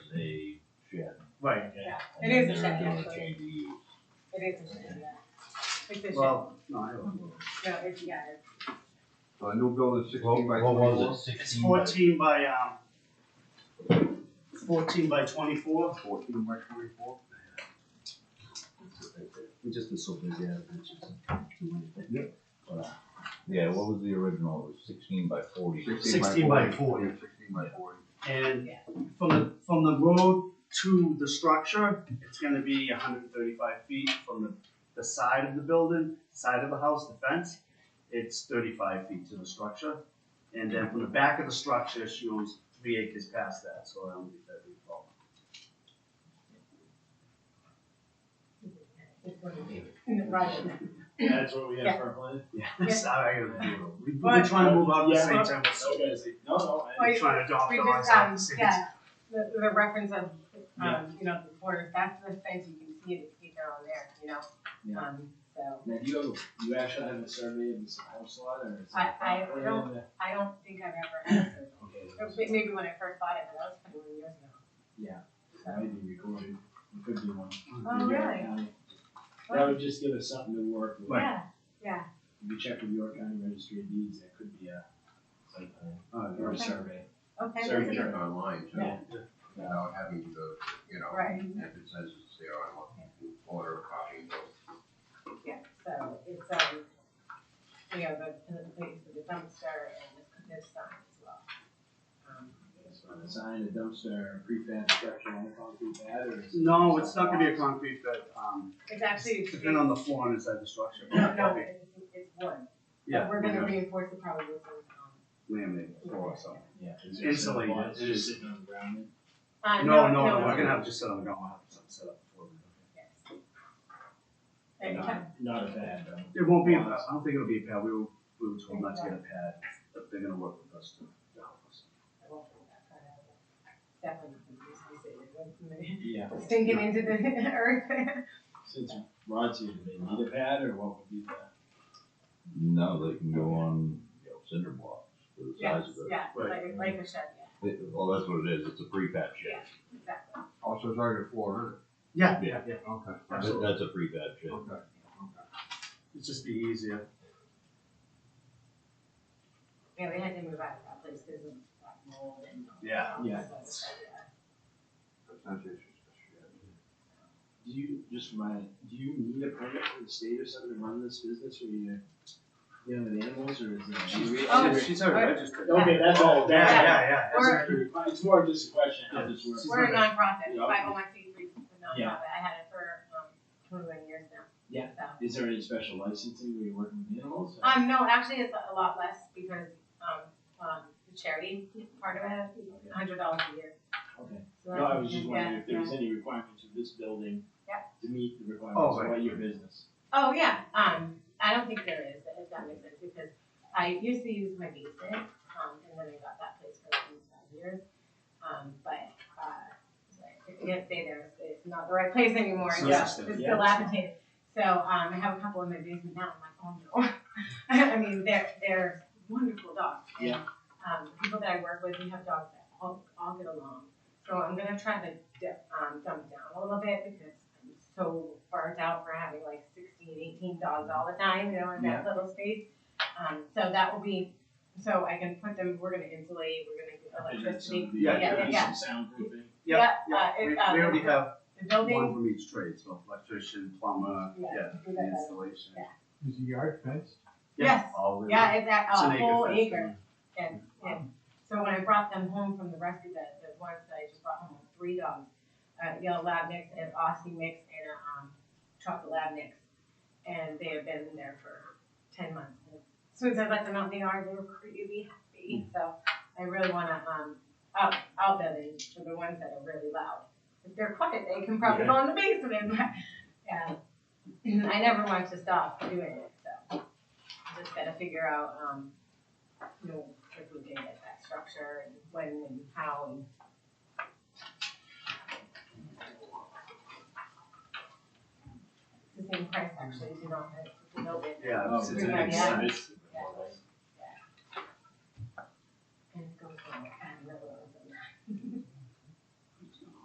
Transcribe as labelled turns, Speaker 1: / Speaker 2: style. Speaker 1: Right,
Speaker 2: It is a
Speaker 3: They're
Speaker 2: second,
Speaker 3: gonna
Speaker 2: actually.
Speaker 3: change the-
Speaker 2: it is a second, yeah. It's a shed, no,
Speaker 1: well, no, I don't. know.
Speaker 2: it's, yeah, it's,
Speaker 4: So a new building sixteen
Speaker 5: What,
Speaker 4: by
Speaker 5: what
Speaker 4: twenty-four?
Speaker 5: was it,
Speaker 1: It's
Speaker 5: sixteen? by-
Speaker 1: fourteen by, um, fourteen by twenty-four.
Speaker 4: Fourteen by twenty-four?
Speaker 6: We've just been so busy out of pictures. But, uh, Yeah, what was the original, It was sixteen by forty?
Speaker 1: 16 by 40.
Speaker 4: Yeah, Sixteen by forty.
Speaker 1: And from the, from the road to the structure, it's gonna be hundred and thirty-five feet from the, the side of the building, side of the house, the fence. It's thirty-five feet to the structure, and then from the back of the structure, she owns three acres past that, so I don't think that'd be a problem.
Speaker 2: it's what it is, in the project.
Speaker 3: That's what we have for a plan.
Speaker 1: Yeah, sorry, I gotta do it. We've been
Speaker 2: But-
Speaker 1: trying to move out at the same
Speaker 3: Yeah.
Speaker 1: time, we're so
Speaker 3: Okay.
Speaker 1: busy.
Speaker 3: No, no, I-
Speaker 2: Oh, yeah.
Speaker 1: Trying to adopt
Speaker 2: We
Speaker 1: all our
Speaker 2: just, um,
Speaker 1: stuff.
Speaker 2: yeah, the, the reference of,
Speaker 3: Yeah.
Speaker 2: um, you know, the borders, that's the fence, you can see it, it's either on there, you know?
Speaker 3: Yeah.
Speaker 2: Um, so,
Speaker 3: now you, you actually have a survey of this house lot or is it?
Speaker 2: I- I don't- I don't think I've ever had it,
Speaker 3: Okay,
Speaker 2: Or may- maybe when I first bought it, but that was twenty-one years ago.
Speaker 3: that might be recorded, it could be one.
Speaker 2: Oh,
Speaker 3: York
Speaker 2: really?
Speaker 3: County. That would just give us something to work with.
Speaker 2: Yeah, yeah,
Speaker 3: If you check with York County Registry of Deeds, that could be a site plan
Speaker 1: Alright,
Speaker 3: or a
Speaker 2: Okay.
Speaker 3: survey.
Speaker 2: okay.
Speaker 3: Sorry,
Speaker 2: that's
Speaker 4: You
Speaker 2: it.
Speaker 4: check online too,
Speaker 3: Yeah.
Speaker 4: without having to, you know,
Speaker 2: Right.
Speaker 4: if it says it's there, I want to order a copy.
Speaker 2: Yeah, so it's, um, you know, the, the place for the dumpster and the, the sign as well. Um,
Speaker 3: So a sign, a dumpster, a prefab structure on the concrete pad or? is it-
Speaker 1: No, it's not gonna be a concrete bed, um,
Speaker 2: It's actually.
Speaker 1: depending on the floor and inside the structure.
Speaker 2: No, no, it's, it's wood,
Speaker 1: Yeah,
Speaker 2: but we're gonna reinforce it probably with some, um,
Speaker 1: laminate floor or something.
Speaker 3: Yeah. is there
Speaker 1: Insulated.
Speaker 3: some boards just sitting on the ground then?
Speaker 2: um, uh,
Speaker 1: No, no, no, we're gonna have to sit on the ground, we'll have something set up for it.
Speaker 2: yes. And
Speaker 3: Not-
Speaker 2: kind
Speaker 3: Not a bad, though.
Speaker 1: It won't be, a pad. I don't think it'll be a pad, we were, we were told not to get a pad, but they're gonna work with us to to help us.
Speaker 2: of- I won't put that part out, but Definitely, it's,
Speaker 3: Yeah,
Speaker 2: it's sinking into the earth.
Speaker 3: since Rod's here, do they need a pad or what would be the?
Speaker 6: No, they can go on you know, cinder blocks for the
Speaker 2: Yes,
Speaker 6: size of it.
Speaker 2: yeah, like,
Speaker 1: Right.
Speaker 2: like a shed, yeah,
Speaker 6: It- Well, that's what it is, it's a prefab shed.
Speaker 2: exactly.
Speaker 4: Also, Oh, it's already four
Speaker 1: Yeah, yeah,
Speaker 6: Yeah.
Speaker 1: yeah,
Speaker 4: hundred. Okay.
Speaker 6: That-
Speaker 1: absolutely.
Speaker 6: That's a prefab shed.
Speaker 4: Okay,
Speaker 1: It'd just be easier.
Speaker 2: Yeah, we had to move out of that place because of like mold and.
Speaker 1: Yeah.
Speaker 2: all
Speaker 3: Yeah.
Speaker 2: that stuff, yeah.
Speaker 4: Essentially, it's just
Speaker 3: Do you, just remind, do you need a permit from the state or something to run this business or you, you know, the animals or is it?
Speaker 1: She's,
Speaker 2: Oh,
Speaker 1: she's already registered.
Speaker 3: Okay, that's all,
Speaker 1: Yeah,
Speaker 3: that, yeah.
Speaker 1: yeah, yeah.
Speaker 2: Or-
Speaker 3: It's more just a question, how this works.
Speaker 1: She's
Speaker 2: We're a
Speaker 1: not
Speaker 2: nonprofit,
Speaker 3: Yeah.
Speaker 2: five oh one C three, nonprofit,
Speaker 3: Yeah.
Speaker 2: I had it for, um, twenty-one years now.
Speaker 3: Yeah.
Speaker 2: So.
Speaker 3: Is there any special licensing where you're working with animals?
Speaker 2: Um, no, actually, it's a lot less because, um, um, the charity part of it, a hundred dollars a year.
Speaker 3: Okay.
Speaker 2: So
Speaker 3: No,
Speaker 2: that's-
Speaker 3: I was just
Speaker 2: yeah,
Speaker 3: wondering if there was
Speaker 2: yeah.
Speaker 3: any requirements of this building
Speaker 2: Yeah.
Speaker 3: to meet the
Speaker 1: Oh,
Speaker 3: requirements
Speaker 1: right.
Speaker 3: of your business.
Speaker 2: Oh, yeah, um, I don't think there is, if that makes sense, because I used to use my basement, um, and then I got that place for at least five years. Um, but, uh, so I can't stay there, It's- it's not the right place anymore,
Speaker 1: It's
Speaker 2: it's
Speaker 1: not
Speaker 2: just,
Speaker 1: sustainable,
Speaker 2: it's
Speaker 3: yeah.
Speaker 2: dilapidated. So, um, I have a couple in my basement now, I'm like, oh no. I mean, they're, they're wonderful dogs. and,
Speaker 3: Yeah.
Speaker 2: Um, the people that I work with, we have dogs that all, all get along. So I'm gonna try to dip, um, dump down a little bit because I'm so burnt out for having like 16, 18 dogs all the time, you know, in that little space. Um, so that will be, so I can put them, we're gonna insulate, we're gonna get electricity.
Speaker 1: Yeah,
Speaker 2: yeah, yeah.
Speaker 3: Some soundproofing.
Speaker 1: Yeah,
Speaker 2: Yeah, uh,
Speaker 1: yeah, we,
Speaker 2: it,
Speaker 1: we
Speaker 2: uh,
Speaker 1: already have
Speaker 2: The
Speaker 1: one
Speaker 2: building,
Speaker 1: from each trade, so electrician, plumber,
Speaker 2: Yeah,
Speaker 1: yeah,
Speaker 2: we
Speaker 1: the
Speaker 2: got that.
Speaker 1: installation.
Speaker 2: Yeah.
Speaker 5: Is the yard fenced?
Speaker 2: Yes.
Speaker 1: all in.
Speaker 2: yeah, it's at
Speaker 1: It's an
Speaker 2: a whole
Speaker 1: fence.
Speaker 2: acre. And, and so when I brought them home from the rescue, the, the ones that I just brought home with three dogs, a yellow lab mix, an Aussie mix, and a, um, chocolate lab mix. And they have been there for ten months. And As soon as I let them out in the yard, they were crazy happy, so I really wanna, um, out, outbid them for the ones that are really loud. If they're quiet, they can probably go in the basement, but, yeah. I never want to stop doing it, so just gotta figure out, um, you know, if we can get that structure and when and how and. It's the same price actually, if you don't, if you don't.
Speaker 1: Yeah, it's, it's an
Speaker 2: Yeah.
Speaker 1: exercise.